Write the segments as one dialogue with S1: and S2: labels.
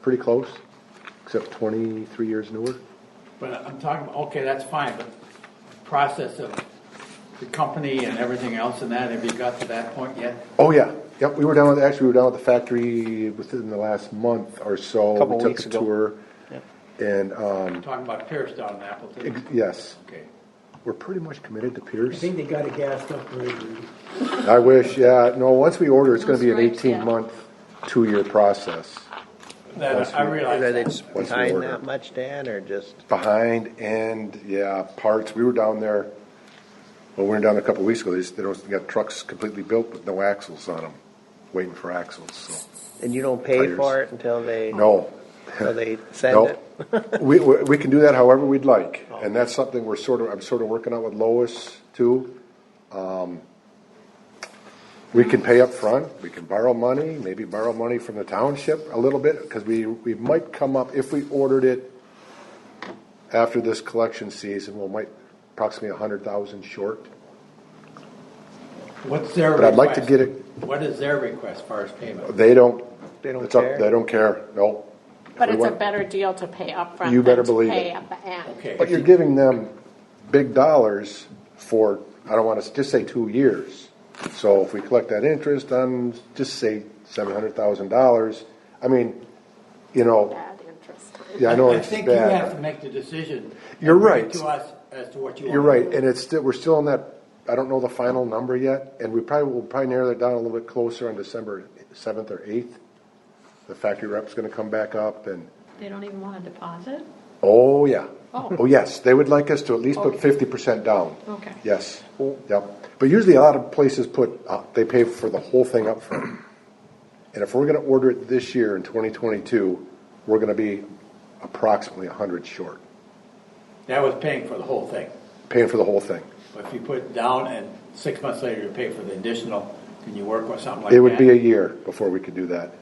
S1: pretty close, except twenty-three years newer.
S2: But I'm talking, okay, that's fine, but process of the company and everything else and that, have you got to that point yet?
S1: Oh, yeah, yep, we were down with, actually, we were down with the factory within the last month or so.
S3: Couple
S1: We took
S3: weeks
S1: a
S3: ago.
S1: tour, And, um,
S2: I'm talking about Pierce down in
S1: ex-
S2: Appleton.
S1: yes,
S2: Okay.
S1: we're pretty much committed to Pierce.
S4: I think they got it gassed up really, really.
S1: I wish, yeah, no, once we order, it's gonna be an
S5: Stripes, yeah.
S1: eighteen-month, two-year process.
S2: That, I realize
S3: Whether
S2: that.
S3: it's
S1: Once we
S3: behind
S1: order.
S3: that much, Dan, or just,
S1: Behind and, yeah, parts, we were down there, well, we were down a couple weeks ago, they just, they don't, they got trucks completely built with no axles on them, waiting for axles, so,
S3: and you don't pay
S1: Tires.
S3: for it until they,
S1: no.
S3: until they send
S1: No,
S3: it?
S1: we, we we can do that however we'd like, and that's something we're sort of, I'm sort of working out with Lois too. Um, We can pay up front. we can borrow money, maybe borrow money from the township a little bit, because we, we might come up, if we ordered it after this collection season, we might approximately a hundred thousand short.
S2: What's their request?
S1: But I'd like to get it-
S2: What is their request as far as payment?
S1: They don't.
S3: They don't
S1: it's up-
S3: care?
S1: They don't care, no.
S5: But
S1: We
S5: it's a
S1: want-
S5: better deal to pay upfront
S1: You better
S5: than to
S1: believe
S5: pay
S1: it.
S5: at the end.
S2: Okay.
S1: But you're giving them big dollars for, I don't wanna, s- just say two years. So if we collect that interest on, just say seven hundred thousand dollars, I mean, you know,
S5: Bad interest.
S1: yeah, I know it's
S2: think you have
S1: bad.
S2: to make the decision.
S1: You're
S2: and bring it
S1: right.
S2: To us as to what you want.
S1: You're right, and it's still, we're still in that, I don't know the final number yet, and we probably, will probably narrow that down a little bit closer on December seventh or eighth. The factory rep's gonna come back up and,
S6: They don't even want a deposit?
S1: oh, yeah.
S6: Oh.
S1: Oh, yes, they would like us to at least put fifty percent down.
S6: Okay.
S1: Yes, yep. But usually a lot of places put, uh, they pay for the whole thing up front. And if we're gonna order it this year in twenty twenty-two, we're gonna be approximately a hundred short,
S2: That was paying for the whole thing.
S1: paying for the whole thing.
S2: But if you put it down and six months later you pay for the additional, can you work with something like that?
S1: It would be a year before we could do that.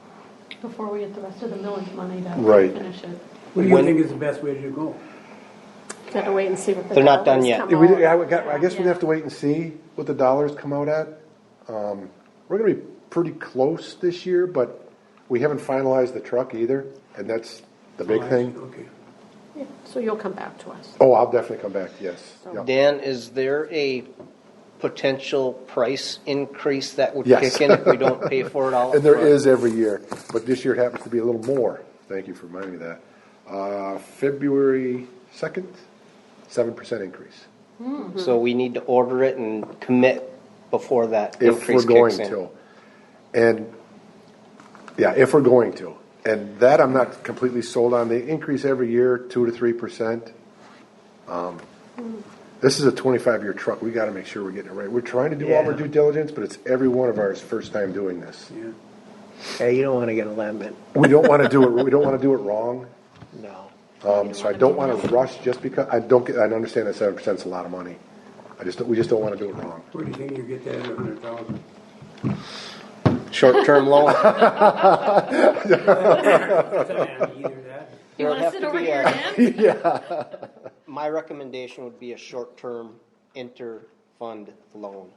S6: Before we get the rest of the millage money
S1: Right.
S6: to finish it.
S4: What do you think is the best way to go?
S5: Gotta wait and see what the.
S3: They're not done
S5: dollars
S3: yet.
S5: come
S1: Yeah,
S6: Oh,
S1: we-
S5: out.
S1: I would- I guess we'd have to wait and see what the dollars come out at. Um, We're gonna be pretty close this year, but we haven't finalized the truck either, and that's the
S6: Oh,
S1: big thing.
S4: Okay.
S5: Yeah, So you'll come back to us.
S1: Oh, I'll definitely come back, yes. Yep.
S3: Dan, is there a potential price increase that would
S1: Yes.
S3: kick in if we don't pay for it all?
S1: And there
S3: upfront?
S1: is every year, but this year it happens to be a little more. Thank you for reminding me of that. Uh, February 2nd, 7% increase.
S3: So we need to order it and commit before that
S1: If we're
S3: increase
S1: going
S3: kicks in?
S1: to. And, yeah, if we're going to. And that I'm not completely sold on. They increase every year, 2 to 3%. Um, This is a 25-year truck. We got to make sure we're getting it right. We're trying to do all our
S3: Yeah.
S1: due diligence, but it's every one of ours first time doing this.
S4: Yeah.
S3: Hey, you don't wanna get a lemon,
S1: We don't want to do it, we don't want to do it wrong.
S3: no.
S1: Um, so I don't wanna rush just because, I don't get, I understand that seven percent's a lot of money. I just, don't- we just don't wanna do it wrong.
S4: Where do you think you get that at a hundred thousand?
S3: Short-term loan.
S4: Either that.
S3: It
S6: You
S3: would have
S6: want to sit
S3: to
S6: over
S3: be
S6: here
S3: a-
S6: again?
S3: My recommendation would be a short-term inter-fund loan.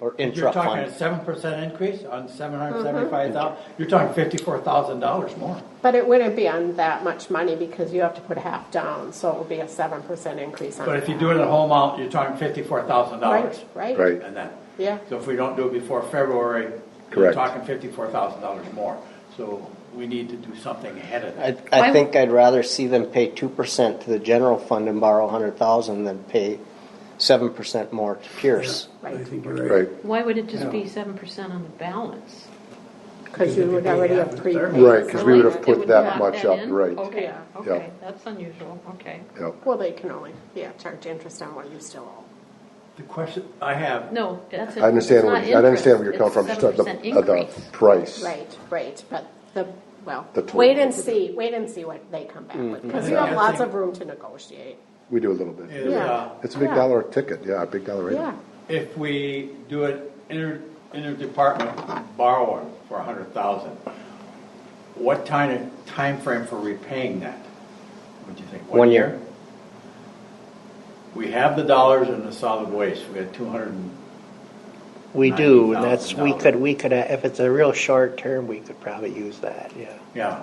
S3: Or
S2: You're
S3: intra
S2: talking a
S3: fund.
S2: seven percent increase on seven hundred seventy-five thousand, you're talking fifty-four thousand dollars more.
S5: But it wouldn't be on that much money because you have to put half down, so it would be a seven percent increase on.
S2: But if you
S5: that.
S2: do it at home out, you're talking fifty-four thousand dollars.
S5: Right, right,
S1: Right.
S2: And that.
S5: yeah.
S2: So if we don't do it before February, you're
S1: Correct.
S2: talking fifty-four thousand dollars more. So we need to do something ahead of that.
S3: I, I think I'd rather see them pay two percent to the general fund and borrow a hundred thousand than pay seven percent more to Pierce.
S4: I
S5: Right,
S4: think you're right.
S1: Right,
S6: Why would it just be seven percent on the balance?
S5: because you would already have prepaid.
S1: Right, 'cause we would have
S5: something.
S6: It
S1: put
S6: would
S1: that
S6: lock
S1: much up,
S6: in?
S1: right.
S6: Okay,
S5: Yeah.
S6: okay,
S1: Yep.
S6: that's unusual, okay.
S1: yep.
S5: Well, they can only, yeah, charge interest on what you still owe.
S2: The question I have,
S6: No, that's.
S1: I understand, where- I understand where you're coming from, just the, the- the price.
S5: Right, right, but the, well,
S1: The total. Mm.
S5: wait and see, wait and see what they come back with, because you have
S2: Yeah.
S5: lots of room to negotiate.
S1: We do a little bit.
S2: is, uh,
S1: It's a big
S5: Yeah.
S1: dollar ticket, yeah, a big dollar item.
S5: Yeah,
S2: if we do an inter, interdepartment borrowing for a hundred thousand, what time, frame for repaying that? What do you think?
S3: One year.
S2: We have the dollars in the solid waste, we had two hundred and,
S7: We do, and
S2: $90,000.
S7: that's, we could, we could, uh, if it's a real short term, we could probably use that, yeah.
S2: yeah.